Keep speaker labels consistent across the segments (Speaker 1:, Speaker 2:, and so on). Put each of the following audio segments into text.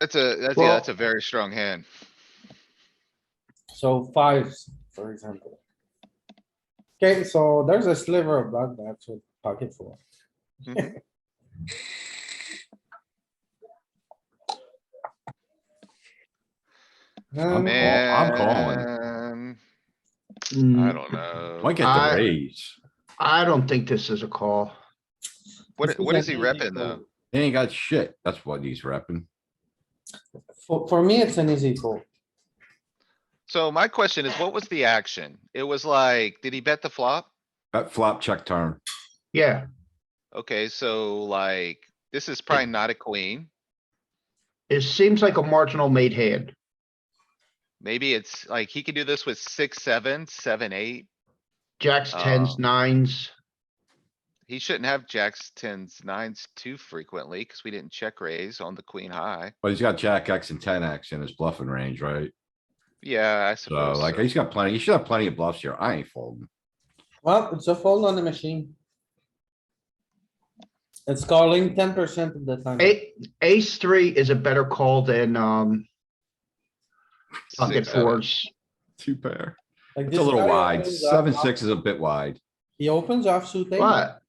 Speaker 1: That's a, that's, yeah,
Speaker 2: Well-
Speaker 1: that's a very strong hand.
Speaker 2: So fives, for example. Okay, so there's a sliver of blood that's with pocket four.
Speaker 1: Mhm. Oh,
Speaker 2: Um,
Speaker 3: I'm calling.
Speaker 1: Man, I
Speaker 2: mm,
Speaker 1: don't know.
Speaker 3: Might get
Speaker 4: I-
Speaker 3: the raise.
Speaker 4: I don't think this is a call.
Speaker 1: What,
Speaker 2: this is
Speaker 1: what is he
Speaker 2: an easy
Speaker 1: repping though?
Speaker 2: fold.
Speaker 3: He ain't got shit. That's what he's repping.
Speaker 2: For, for me, it's an easy fold.
Speaker 1: So my question is, what was the action? It was like, did he bet the flop?
Speaker 3: That flop check turn.
Speaker 4: Yeah,
Speaker 1: Okay, so like, this is probably not a queen.
Speaker 4: it seems like a marginal made hand.
Speaker 1: Maybe it's like, he could do this with six, seven, seven, eight.
Speaker 4: Jacks, tens,
Speaker 1: Oh.
Speaker 4: nines.
Speaker 1: He shouldn't have jacks, tens, nines too frequently, cause we didn't check raise on the queen high.
Speaker 3: But he's got jack X and ten X in his bluffing range, right?
Speaker 1: Yeah, I
Speaker 3: So
Speaker 1: suppose.
Speaker 3: like,
Speaker 1: so.
Speaker 3: he's got plenty, he should have plenty of bluffs here. I ain't folding.
Speaker 2: Well, it's a fold on the machine. It's calling ten percent of the time.
Speaker 4: A ace three is a better call than, um, pocket
Speaker 1: Six, seven.
Speaker 4: fours.
Speaker 3: Two pair.
Speaker 2: Like
Speaker 3: It's
Speaker 2: this
Speaker 3: a little
Speaker 2: guy
Speaker 3: wide.
Speaker 2: opens up
Speaker 3: Seven,
Speaker 2: off-
Speaker 3: six is a bit wide.
Speaker 2: He opens offsuit eight,
Speaker 4: But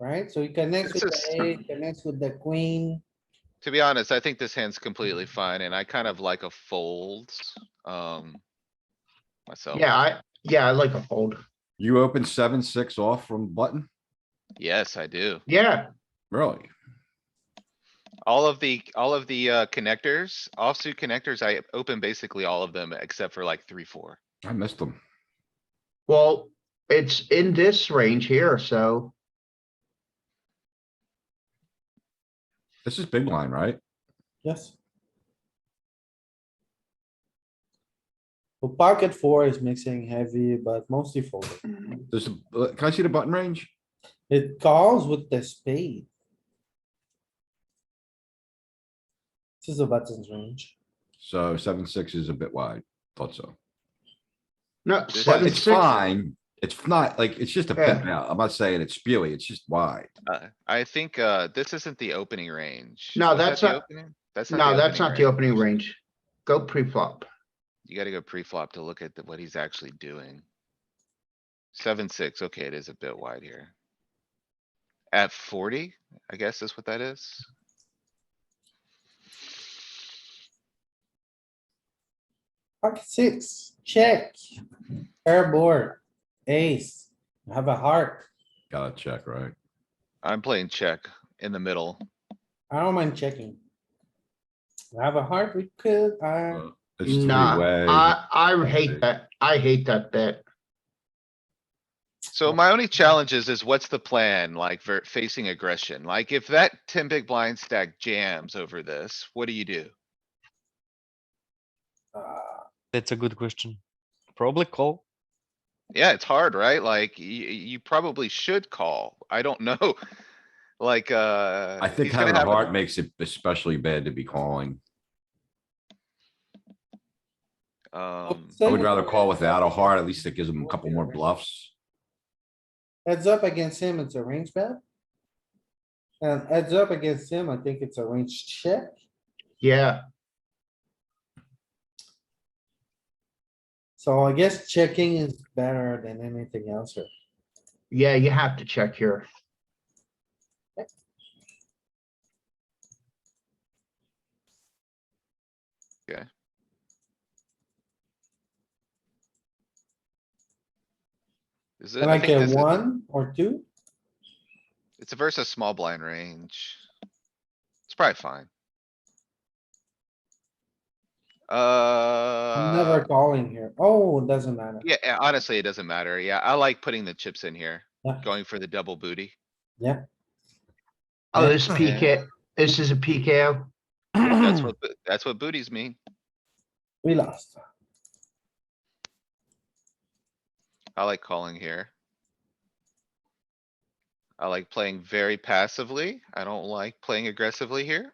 Speaker 2: right? So he connects
Speaker 1: This
Speaker 2: with
Speaker 1: is-
Speaker 2: the eight, connects with the queen.
Speaker 1: To be honest, I think this hand's completely
Speaker 4: Mm-hmm.
Speaker 1: fine and I kind of like a fold, um. Myself,
Speaker 4: yeah, I, yeah, I like a fold.
Speaker 3: You open seven, six off from button?
Speaker 1: yes, I do.
Speaker 4: Yeah,
Speaker 3: Really?
Speaker 1: All of the, all of the, uh, connectors, offsuit connectors, I open basically all of them except for like three, four.
Speaker 3: I missed them.
Speaker 4: well, it's in this range here, so,
Speaker 3: This is big line, right?
Speaker 2: Yes. So pocket four is mixing heavy, but mostly folded.
Speaker 3: There's, a- uh, can I see the button range?
Speaker 2: It calls with the spade. This is the button's range.
Speaker 3: So seven, six is a bit wide. Thought so.
Speaker 4: no,
Speaker 1: It's
Speaker 3: But
Speaker 4: seven,
Speaker 3: it's
Speaker 4: six.
Speaker 3: fine. It's not like, it's just a
Speaker 4: Yeah.
Speaker 3: pip out. I'm not saying it's spewy. It's just wide.
Speaker 1: Uh, I think, uh, this isn't the opening range.
Speaker 4: No,
Speaker 1: Was that
Speaker 4: that's
Speaker 1: the
Speaker 4: not-
Speaker 1: opening? That's not.
Speaker 4: No, that's not the opening range. Go pre-flop.
Speaker 1: You gotta go pre-flop to look at the- what he's actually doing. Seven, six, okay, it is a bit wide here. At forty, I guess is what that is.
Speaker 2: Pocket six, check. Pair board, ace, You have a heart.
Speaker 3: Gotta check, right?
Speaker 1: I'm playing check in the middle.
Speaker 2: I don't mind checking. You Have a heart, we could, uh,
Speaker 3: Uh, It's
Speaker 4: Nah,
Speaker 3: three-way.
Speaker 4: I, I
Speaker 3: Okay.
Speaker 4: hate that. I hate that bet.
Speaker 1: So my only challenge is, is what's the plan like for facing aggression? Like if that ten big blind stack jams over this, what do you do?
Speaker 2: uh,
Speaker 5: That's a good question. Probably call.
Speaker 1: Yeah, it's hard, right? Like you, you probably should call. I don't know. Like, uh.
Speaker 3: I think
Speaker 1: he's gonna
Speaker 3: having a
Speaker 1: have a-
Speaker 3: heart makes it especially bad to be calling.
Speaker 1: Um,
Speaker 3: I
Speaker 2: So-
Speaker 3: would rather call without a heart. At least it gives him a couple more bluffs.
Speaker 2: heads up against him, it's a range bet. And heads up against him, I think it's a range check.
Speaker 4: Yeah,
Speaker 2: So I guess checking is better than anything else here.
Speaker 4: yeah, you have to check here.
Speaker 1: is it- I
Speaker 2: Like
Speaker 1: think
Speaker 2: a
Speaker 1: this is-
Speaker 2: one or two,
Speaker 1: It's a versus small blind range. It's probably fine.
Speaker 2: never
Speaker 1: Uh,
Speaker 2: calling here. Oh, it doesn't matter.
Speaker 1: yeah, eh, honestly, it doesn't matter. Yeah, I like putting the chips in here,
Speaker 2: Yeah.
Speaker 1: going for the double booty.
Speaker 4: Oh,
Speaker 2: Yeah.
Speaker 4: this PK, this is a PKO.
Speaker 1: That's what, bo- that's what booties mean.
Speaker 2: We lost.
Speaker 1: I like calling here. I like playing very passively. I don't like playing aggressively here.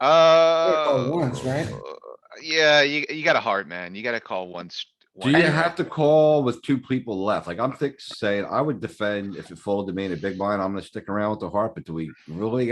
Speaker 2: call
Speaker 1: Uh.
Speaker 2: oh, once, right?
Speaker 1: Yeah, you, you got a heart, man. You gotta call once.
Speaker 3: Do you have to call with two people left? Like I'm think saying, I would defend if it folded to me in a big blind, I'm gonna stick around with the heart, but do we really